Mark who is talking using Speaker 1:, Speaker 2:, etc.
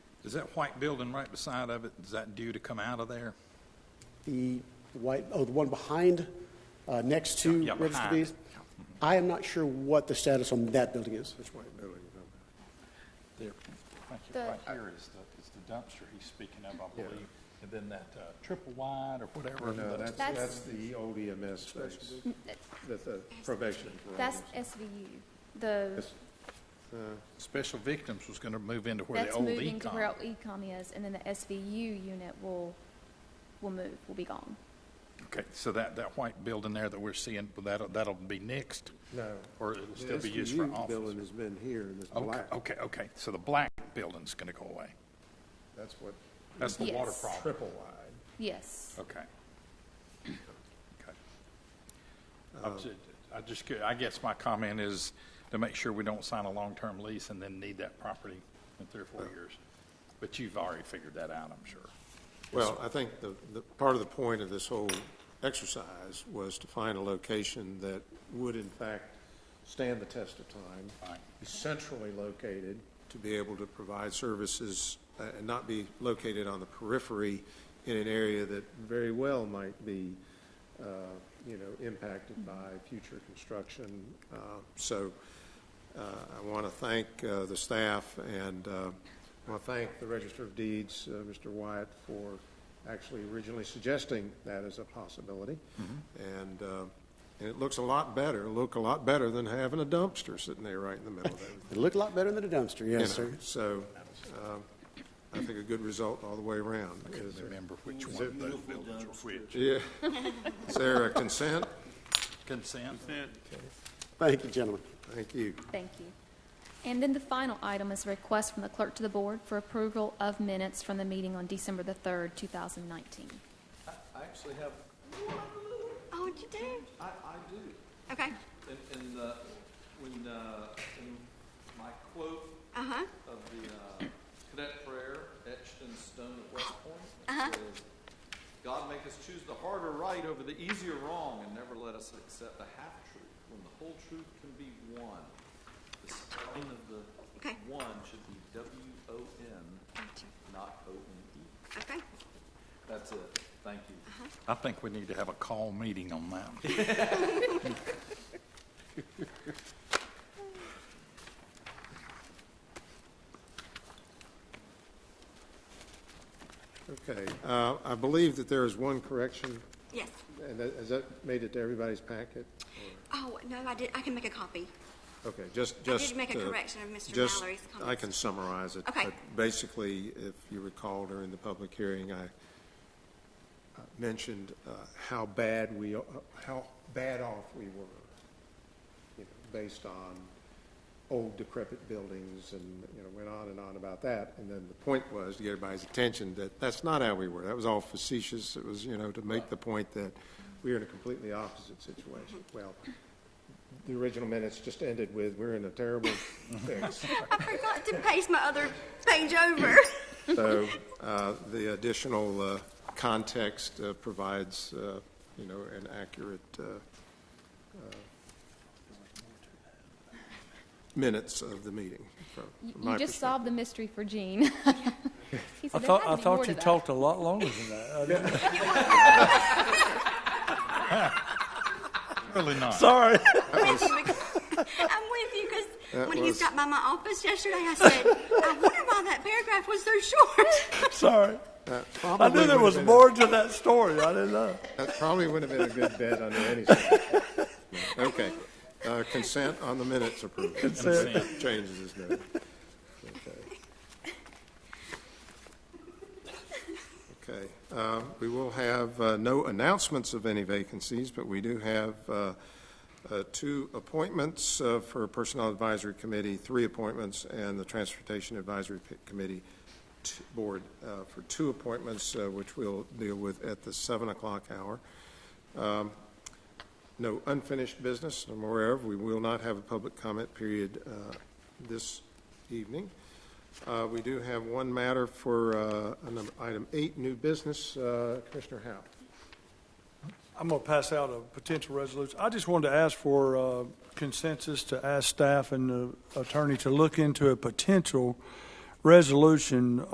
Speaker 1: Is that white building right beside of it, is that due to come out of there?
Speaker 2: The white, oh, the one behind, uh, next to
Speaker 1: Yeah, yeah,
Speaker 2: Register
Speaker 1: behind.
Speaker 2: B's? I am not sure what the status on that building is.
Speaker 1: There, thank you.
Speaker 3: The-
Speaker 1: Right here is the, is the dumpster he's speaking of, I believe. And then that uh, triple wide or whatever.
Speaker 4: No,
Speaker 1: the-
Speaker 4: that's,
Speaker 3: That's-
Speaker 4: that's the old EMS space, that's the probation. for
Speaker 3: That's
Speaker 4: all
Speaker 3: SVU. The,
Speaker 4: this.
Speaker 1: Special Victims was going to move into where the
Speaker 3: that's
Speaker 1: old
Speaker 3: moving to where
Speaker 1: econ.
Speaker 3: old ecom is, and then the SVU unit will, will move, will be gone.
Speaker 1: Okay, so that, that white building there that we're seeing, that'll, that'll be nixed?
Speaker 4: No.
Speaker 1: Or it'll
Speaker 4: The
Speaker 1: still be used for
Speaker 4: SVU Building has
Speaker 1: office?
Speaker 4: been here and it's
Speaker 1: Okay,
Speaker 4: black.
Speaker 1: okay, okay, so the black building's going to go away.
Speaker 4: That's what,
Speaker 1: That's the water
Speaker 3: Yes.
Speaker 1: problem.
Speaker 4: triple wide.
Speaker 3: Yes.
Speaker 1: Okay. Okay. I'm ju- I just, cu- I guess my comment is to make sure we don't sign a long-term lease and then need that property in three or four years. But you've already figured that out, I'm sure.
Speaker 5: Well, I think the, the, part of the point of this whole exercise was to find a location that
Speaker 4: Would in fact stand the test of time,
Speaker 1: Fine.
Speaker 4: be centrally located.
Speaker 5: to be able to provide services uh, and not be located on the periphery in an area that,
Speaker 4: very well might be, uh, you know, impacted by future construction.
Speaker 5: uh, so, uh, I want to thank, uh, the staff and, uh,
Speaker 4: I want to thank the Register of Deeds, uh, Mr. Wyatt, for actually originally suggesting that as a possibility.
Speaker 5: and, uh, and it looks a lot better, look a lot better than having a dumpster sitting there right in the middle of everything.
Speaker 2: It looked a lot better than a dumpster, yes,
Speaker 5: you
Speaker 2: sir.
Speaker 5: know. So, um, I think a good result all the way around. Is-
Speaker 1: Remember which one of those buildings were which.
Speaker 5: Yeah. Is there a consent?
Speaker 1: Consent?
Speaker 2: Thank you, gentlemen.
Speaker 5: Thank you.
Speaker 3: Thank you. And then the final item is a request from the clerk to the board for approval of minutes from the meeting on December the 3rd, 2019.
Speaker 6: I actually have,
Speaker 7: Oh, you do?
Speaker 6: I, I do.
Speaker 7: Okay.
Speaker 6: In, in the, when, uh, in my quote
Speaker 7: Uh huh.
Speaker 6: of the, uh, cadet prayer etched in stone at West Point, it says, God make us choose the harder right over the easier wrong and never let us accept the half truth when the whole truth can be one. The spelling of the
Speaker 7: Okay.
Speaker 6: one should be W O N,
Speaker 7: Gotcha.
Speaker 6: not O N E.
Speaker 7: Okay.
Speaker 6: That's it. Thank you.
Speaker 1: I think we need to have a call meeting on that.
Speaker 5: Okay, uh, I believe that there is one correction,
Speaker 7: Yes.
Speaker 4: And that- has that made it to everybody's packet?
Speaker 7: Oh no, I did. I can make a copy.
Speaker 5: okay, just,
Speaker 7: did
Speaker 5: just.
Speaker 7: make a
Speaker 5: uh,
Speaker 7: correction of Mr.
Speaker 5: just-
Speaker 7: Mallory's
Speaker 5: I
Speaker 7: comments.
Speaker 5: can summarize it.
Speaker 7: Okay.
Speaker 5: but Basically, if you recall during the public hearing, I uh, mentioned uh,
Speaker 4: How bad we, uh, how bad off we were, you know, based on old decrepit buildings and, you know, went on and on about that. And then the
Speaker 5: point was to get everybody's attention that that's not how we were. That was all facetious. It was, you know, to make the point that
Speaker 4: we're in a completely opposite situation. Well, the original minutes just ended with, we're in a terrible fix.
Speaker 7: I forgot to paste my other page over.
Speaker 5: So uh, the additional uh, context uh, provides, uh, you know, an accurate uh, uh, minutes of the meeting from
Speaker 3: You-
Speaker 5: from my
Speaker 3: You just
Speaker 5: perspective.
Speaker 3: solved the mystery for Gene. He
Speaker 8: I
Speaker 3: said, "There
Speaker 8: thought, I
Speaker 3: hasn't been more
Speaker 8: thought
Speaker 3: to
Speaker 8: you
Speaker 3: that."
Speaker 8: talked a lot longer than that. I didn't-
Speaker 1: Really not.
Speaker 8: Sorry.
Speaker 7: I'm with you because
Speaker 5: That
Speaker 7: when he
Speaker 5: was-
Speaker 7: stopped by my office yesterday, I said, I wonder why that paragraph was so short.
Speaker 8: Sorry. I
Speaker 5: Probably
Speaker 8: knew there
Speaker 5: would've
Speaker 8: was
Speaker 5: been a-
Speaker 8: more to that story. I didn't know.
Speaker 4: That probably would have been a good bet under any circumstances.
Speaker 5: Okay. Uh, Consent on the minutes approved.
Speaker 1: Consent.
Speaker 5: Changes is noted. Okay. Uh, We will have uh, no announcements of any vacancies, but we do have uh, uh, two appointments uh, for Personnel Advisory Committee, three appointments, and the Transportation Advisory P- Committee t- Board uh, for two appointments, uh, which we'll deal with at the 7 o'clock hour. No unfinished business, I'm aware of. We will not have a public comment period uh, this evening. Uh, We do have one matter for uh, number- item eight, new business. Uh, Commissioner Howe.
Speaker 8: I'm going to pass out a potential resolution. I just wanted to ask for uh, consensus to ask staff and the attorney to look into a potential resolution